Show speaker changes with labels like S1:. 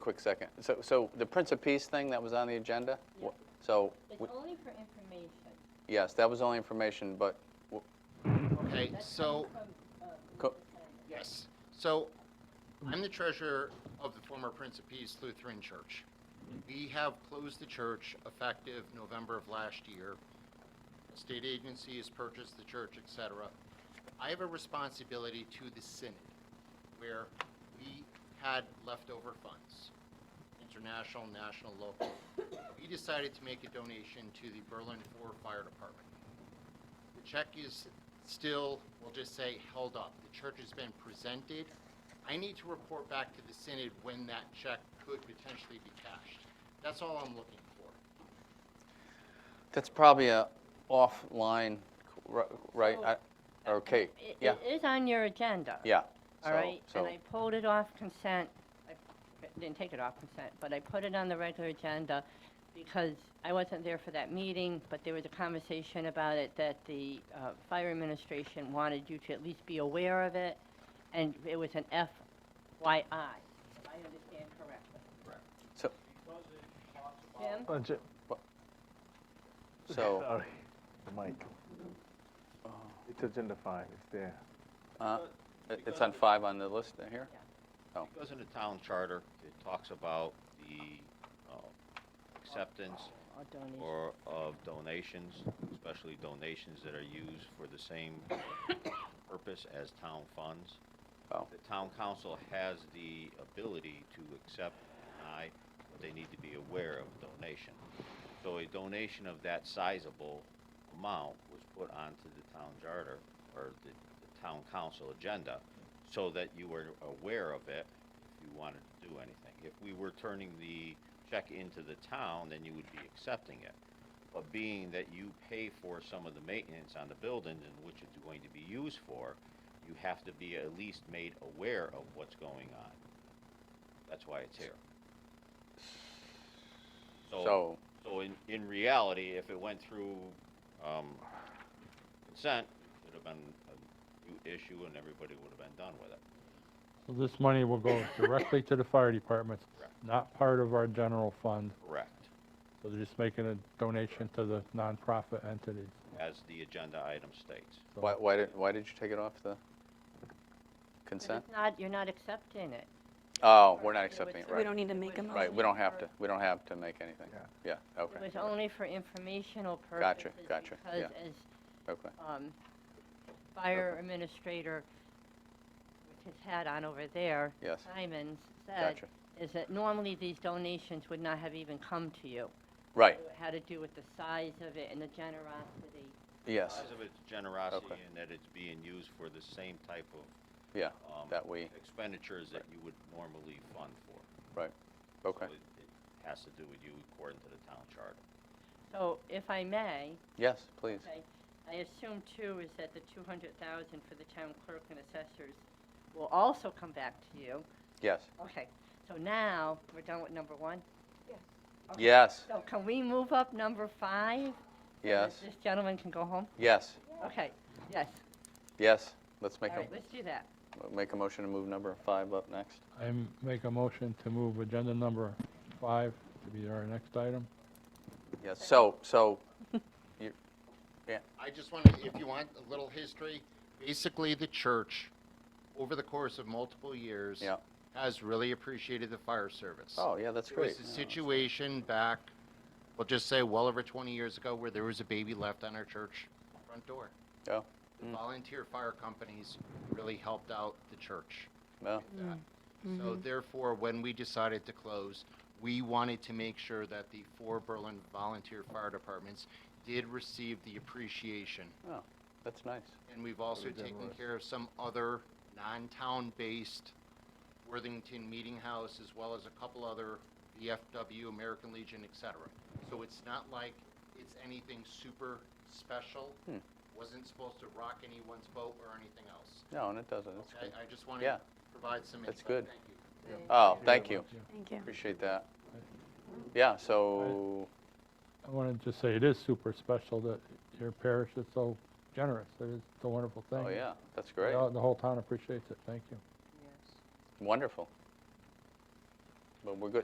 S1: Quick second. So, so the Prince of Peace thing that was on the agenda?
S2: Yeah.
S1: Wh- So,
S2: It's
S1: w-
S2: only for information.
S1: yes, that was only information, but, w-
S3: Okay,
S2: That's
S3: so,
S2: coming from, uh,
S1: Co-
S3: yes, so I'm the treasurer of the former Prince of Peace Lutheran Church. We have closed the church effective November of last year. The State agency has purchased the church, et cetera. I have a responsibility to the synod where we had leftover funds, international, national, local. We decided to make a donation to the Berlin Four Fire Department. The check is still, we'll just say, held up. The church has been presented. I need to report back to the synod when that check could potentially be cashed. That's all I'm looking for.
S1: that's probably a offline, r- right?
S2: So-
S1: I- Or Kate,
S2: Oh. It-
S1: yeah,
S2: It is on your agenda.
S1: yeah.
S2: All
S1: So-
S2: right,
S1: so-
S2: and I pulled it off consent, I didn't take it off consent, but I put it on the regular agenda because I wasn't there for that meeting, but there was a conversation about it that the uh, fire administration wanted you to at least be aware of it, and it was an FYI, if I understand correctly.
S1: So,
S2: Jim?
S4: Bunch of-
S1: so,
S4: Sorry, the mic. It's agenda five, it's there.
S1: uh, it- it's on five on the list here?
S5: It goes in the town charter, it talks about the uh, acceptance
S2: I'll donate.
S5: or of donations, especially donations that are used for the same purpose as town funds.
S1: Oh.
S5: The town council has the ability to accept, deny, but they need to be aware of a donation. So a donation of that sizable amount was put onto the town charter, or the, the town council agenda, so that you were aware of it if you wanted to do anything. If we were turning the check into the town, then you would be accepting it. But being that you pay for some of the maintenance on the buildings and which it's going to be used for, you have to be at least made aware of what's going on. That's why it's here.
S1: So,
S5: So in, in reality, if it went through, um, consent, it'd have been a new issue and everybody would have been done with it.
S6: So this money will go directly to the fire departments,
S5: Correct.
S6: not part of our general fund.
S5: Correct.
S6: So they're just making a donation to the nonprofit entities.
S5: As the agenda item states.
S1: why, why did, why did you take it off the
S2: But
S1: consent?
S2: it's not, you're not accepting it.
S1: Oh, we're not
S2: It
S1: accepting
S2: was-
S1: it,
S7: So we
S1: right?
S7: don't need to make a motion.
S1: Right, we don't have to, we don't have to make anything. Yeah, okay.
S2: It was only for informational
S1: Gotcha,
S2: purposes.
S1: gotcha, yeah.
S2: Because as
S1: Okay.
S2: um, fire administrator, with his hat on over there,
S1: Yes.
S2: Simons, said,
S1: Gotcha.
S2: is that normally these donations would not have even come to you.
S1: Right,
S2: It had to do with the size of it and the generosity.
S1: yes,
S5: Because of its generosity
S1: Okay.
S5: and that it's being used for the same type of,
S1: yeah,
S5: um,
S1: that we,
S5: expenditures that you would normally fund for.
S1: right,
S5: So
S1: okay.
S5: it- It has to do with you according to the town charter.
S2: So if I may,
S1: Yes, please.
S2: okay, I assume too is that the 200,000 for the town clerk and assessors will also come back to you.
S1: Yes,
S2: Okay, so now, we're done with number one? Okay.
S1: yes,
S2: So can we move up number five? so that
S1: yes,
S2: This gentleman can go home?
S1: yes,
S2: Okay, yes,
S1: yes. Let's
S2: all
S1: make
S2: right, let's
S1: a,
S2: do that.
S1: make a motion to move number five up next.
S6: I m- make a motion to move agenda number five to be our next item.
S1: Yes, so, so,
S3: I just want to, if you want a little history, basically the church, over the course of multiple years,
S1: yeah.
S3: has really appreciated the fire service.
S1: Oh, yeah, that's
S3: There
S1: great.
S3: was a situation back, we'll just say well over 20 years ago, where there was a baby left on our church front door.
S1: Oh,
S3: The
S1: Mm.
S3: volunteer fire companies really helped out the church.
S1: no,
S3: with that. So therefore, when we decided to close, we wanted to make sure that the four Berlin volunteer fire departments did receive the appreciation.
S1: oh, that's nice.
S3: And we've also taken care of some other non-town-based Worthington Meeting House, as well as a couple other VFW, American Legion, et cetera. So it's not like it's anything super special.
S1: Hmm.
S3: Wasn't supposed to rock anyone's boat or anything else.
S1: No, and it doesn't, it's
S3: Okay,
S1: good.
S3: I just wanted
S1: Yeah.
S3: to provide some insight.
S1: That's good.
S3: Thank you.
S1: Oh, thank you,
S7: Thank you.
S1: appreciate that. Yeah, so, oh,
S6: I want to just say it is super special that your parish is so generous. It is a wonderful thing.
S1: oh, yeah, that's
S6: The-
S1: great,
S6: The whole town appreciates it. Thank you.
S1: wonderful. but we're good,